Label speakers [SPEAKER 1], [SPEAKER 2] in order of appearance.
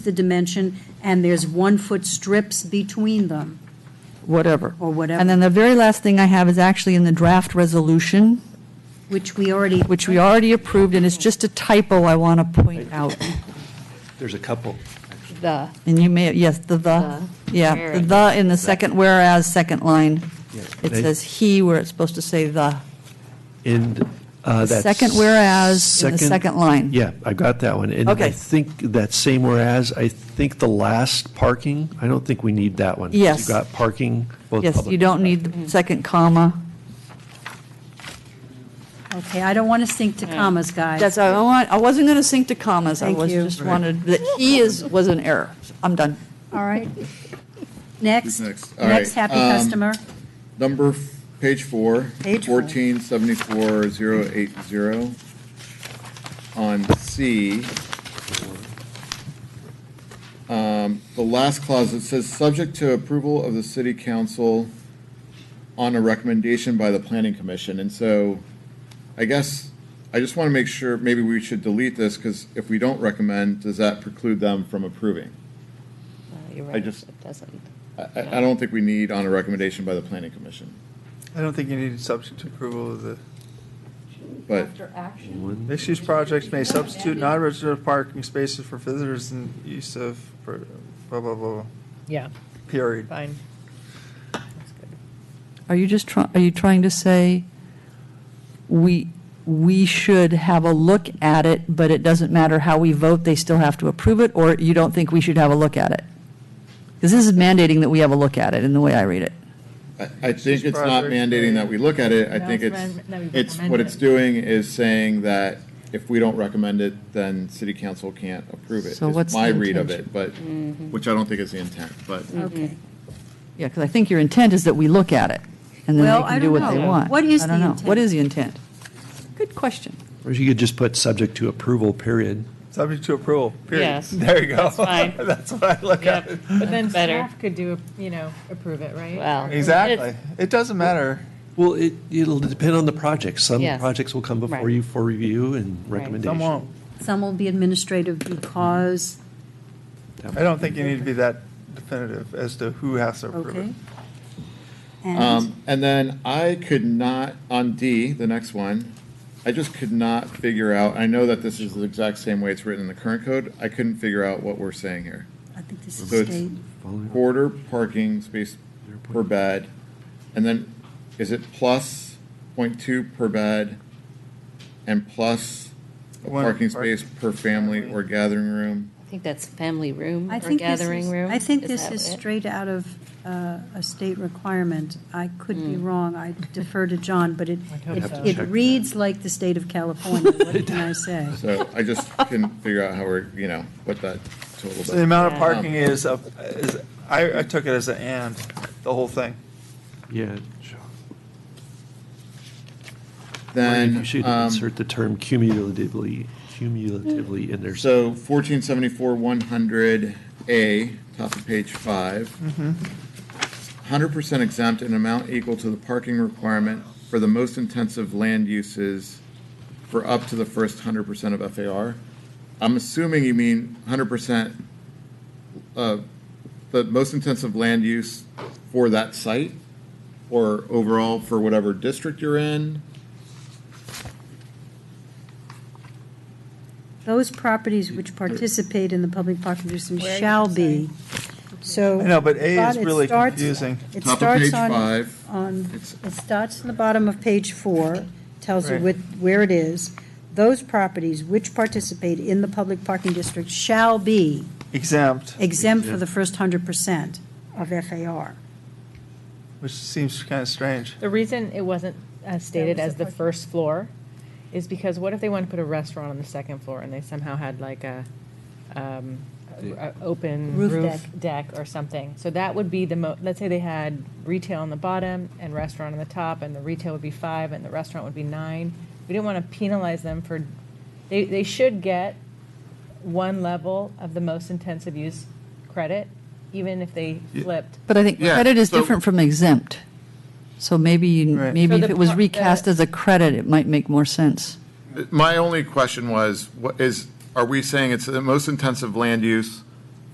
[SPEAKER 1] the dimension, and there's one-foot strips between them.
[SPEAKER 2] whatever.
[SPEAKER 1] Or whatever.
[SPEAKER 2] And then the very last thing I have is actually in the draft resolution,
[SPEAKER 1] Which we already,
[SPEAKER 2] which we already approved, and it's just a typo I want to point out.
[SPEAKER 3] There's a couple.
[SPEAKER 4] The, uh,
[SPEAKER 2] And you may, yes, the the, yeah,
[SPEAKER 4] Very
[SPEAKER 2] the
[SPEAKER 4] good.
[SPEAKER 2] the in the second whereas, second line.
[SPEAKER 3] Yes.
[SPEAKER 2] It says he where it's supposed to say the.
[SPEAKER 3] And uh, that's.
[SPEAKER 2] Second whereas in the second line.
[SPEAKER 3] Yeah, I got that one. And I
[SPEAKER 2] Okay.
[SPEAKER 3] think that same whereas, I think the last parking, I don't think we need that one. 'cause
[SPEAKER 2] Yes.
[SPEAKER 3] You've got parking, both
[SPEAKER 2] Yes,
[SPEAKER 3] public-
[SPEAKER 2] you don't need
[SPEAKER 1] Mm-hmm.
[SPEAKER 2] the second comma.
[SPEAKER 1] okay, I don't want us to think to commas, guys.
[SPEAKER 2] That's, I want, I wasn't going to sink to commas. I
[SPEAKER 1] Thank
[SPEAKER 2] was
[SPEAKER 1] you.
[SPEAKER 2] just wanted, that he is, was an error. I'm done.
[SPEAKER 1] All right. Next,
[SPEAKER 5] Next, all
[SPEAKER 1] next
[SPEAKER 5] right,
[SPEAKER 1] happy
[SPEAKER 5] um,
[SPEAKER 1] customer.
[SPEAKER 5] Number, f- page four.
[SPEAKER 1] Page four.
[SPEAKER 5] 1474080. On C. um, The last clause, it says, "Subject to approval of the city council on a recommendation by the planning commission." And so I guess, I just want to make sure, maybe we should delete this, because if we don't recommend, does that preclude them from approving?
[SPEAKER 4] you're
[SPEAKER 5] I
[SPEAKER 4] right,
[SPEAKER 5] just-
[SPEAKER 4] it doesn't.
[SPEAKER 5] I- I, I don't think we need on a recommendation by the planning commission,
[SPEAKER 6] I don't think you need substitute approval of the,
[SPEAKER 5] but.
[SPEAKER 6] mixed-use projects may substitute non-residential parking spaces for visitors and use of, per- blah, blah, blah,
[SPEAKER 7] Yeah,
[SPEAKER 6] period.
[SPEAKER 7] fine.
[SPEAKER 2] Are you just trying, are you trying to say we, we should have a look at it, but it doesn't matter how we vote, they still have to approve it? Or you don't think we should have a look at it? Because this is mandating that we have a look at it in the way I read it.
[SPEAKER 5] I, I think it's not
[SPEAKER 6] Project.
[SPEAKER 5] mandating that we look at it, I
[SPEAKER 7] No,
[SPEAKER 5] think
[SPEAKER 7] it's
[SPEAKER 5] it's,
[SPEAKER 7] recommend- that we
[SPEAKER 5] it's, what
[SPEAKER 7] recommend
[SPEAKER 5] it's
[SPEAKER 7] it.
[SPEAKER 5] doing is saying that if we don't recommend it, then city council can't approve it,
[SPEAKER 2] So
[SPEAKER 5] is
[SPEAKER 2] what's
[SPEAKER 5] my
[SPEAKER 2] the
[SPEAKER 5] read of it, but,
[SPEAKER 7] Mm-hmm.
[SPEAKER 5] which I don't think is the intent, but.
[SPEAKER 1] Okay.
[SPEAKER 2] Yeah, because I think your intent is that we look at it and then
[SPEAKER 1] Well,
[SPEAKER 2] they
[SPEAKER 1] I
[SPEAKER 2] can do
[SPEAKER 1] don't
[SPEAKER 2] what they
[SPEAKER 1] know.
[SPEAKER 2] want.
[SPEAKER 1] What is
[SPEAKER 2] I don't
[SPEAKER 1] the
[SPEAKER 2] know.
[SPEAKER 1] intent?
[SPEAKER 2] What is the intent? Good question.
[SPEAKER 3] Or you could just put subject to approval, period.
[SPEAKER 6] Subject to approval, period.
[SPEAKER 4] Yes.
[SPEAKER 6] There you go. That's
[SPEAKER 4] fine.
[SPEAKER 6] That's what I look
[SPEAKER 4] Yep,
[SPEAKER 6] at.
[SPEAKER 7] But then
[SPEAKER 4] that's better.
[SPEAKER 7] staff could do, you know, approve it, right?
[SPEAKER 4] Well,
[SPEAKER 6] uh,
[SPEAKER 7] Or-
[SPEAKER 6] Exactly. It doesn't matter.
[SPEAKER 3] Well, it, it'll depend on the project. Some
[SPEAKER 4] Yes.
[SPEAKER 3] projects will come before
[SPEAKER 4] Right.
[SPEAKER 3] you for review and recommendation.
[SPEAKER 6] Some won't.
[SPEAKER 1] Some will be administrative because,
[SPEAKER 6] I don't think you need to be that definitive as to who has to approve it.
[SPEAKER 1] okay? And,
[SPEAKER 5] Um, and then I could not, on D, the next one, I just could not figure out, I know that this is the exact same way it's written in the current code, I couldn't figure out what we're saying here.
[SPEAKER 1] I think this is
[SPEAKER 5] So it's-
[SPEAKER 1] state,
[SPEAKER 5] quarter parking space per bed, and then is it plus point two per bed and plus a
[SPEAKER 6] One
[SPEAKER 5] parking
[SPEAKER 6] park-
[SPEAKER 5] space per family or gathering room?
[SPEAKER 4] I think that's family room
[SPEAKER 1] I
[SPEAKER 4] or
[SPEAKER 1] think this is,
[SPEAKER 4] gathering room.
[SPEAKER 1] I think this
[SPEAKER 4] that
[SPEAKER 1] is
[SPEAKER 4] it?
[SPEAKER 1] straight out of uh, a state requirement. I could be wrong, I defer to John, but it,
[SPEAKER 7] hope
[SPEAKER 1] it-
[SPEAKER 7] so.
[SPEAKER 1] it reads like the state of California, what can I say?
[SPEAKER 5] So I just couldn't figure out how we're, you know, what that total.
[SPEAKER 6] So the amount of
[SPEAKER 4] Yeah.
[SPEAKER 6] parking is, a- is, I, I took it as an and, the whole thing.
[SPEAKER 3] Yeah. Or
[SPEAKER 5] Then,
[SPEAKER 3] You should
[SPEAKER 5] um,
[SPEAKER 3] insert the term cumulatively, cumulatively in there.
[SPEAKER 5] So fourteen seventy-four, one hundred A, top of page five. Hundred percent exempt an amount equal to the parking requirement for the most intensive land uses for up to the first hundred percent of FAR. I'm assuming you mean hundred percent, uh, the most intensive land use for that site? Or overall for whatever district you're in?
[SPEAKER 1] Those properties which participate in the public parking system
[SPEAKER 7] Where are you?
[SPEAKER 1] shall be, so.
[SPEAKER 6] I know, but A is
[SPEAKER 1] it
[SPEAKER 6] really
[SPEAKER 1] starts-
[SPEAKER 6] confusing.
[SPEAKER 1] It
[SPEAKER 5] Top of
[SPEAKER 1] starts
[SPEAKER 5] page
[SPEAKER 1] on,
[SPEAKER 5] five.
[SPEAKER 1] on,
[SPEAKER 5] It's-
[SPEAKER 1] it starts in the bottom of page four, tells you
[SPEAKER 6] Right.
[SPEAKER 1] with, where it is. Those properties which participate in the public parking district shall be
[SPEAKER 6] Exempt,
[SPEAKER 1] exempt for the first hundred percent of FAR.
[SPEAKER 6] which seems kind of strange.
[SPEAKER 7] The reason it wasn't uh, stated as the first floor is because what if they wanted to put a restaurant on the second floor and they somehow had like a, um, a- a open
[SPEAKER 1] Roof
[SPEAKER 7] roof deck or something? So that would be the mo, let's say they had retail on the bottom and restaurant on the top, and the retail would be five and the restaurant would be nine. We didn't want to penalize them for, they, they should get one level of the most intensive use credit, even if they flipped
[SPEAKER 2] But I think
[SPEAKER 5] Yeah,
[SPEAKER 2] credit is
[SPEAKER 5] so-
[SPEAKER 2] different from exempt. So maybe, you-
[SPEAKER 6] Right.
[SPEAKER 2] maybe
[SPEAKER 7] So
[SPEAKER 2] if
[SPEAKER 7] the
[SPEAKER 2] it was
[SPEAKER 7] par-
[SPEAKER 2] recast as a credit, it might make more sense.
[SPEAKER 5] My only question was, what is, are we saying it's the most intensive land use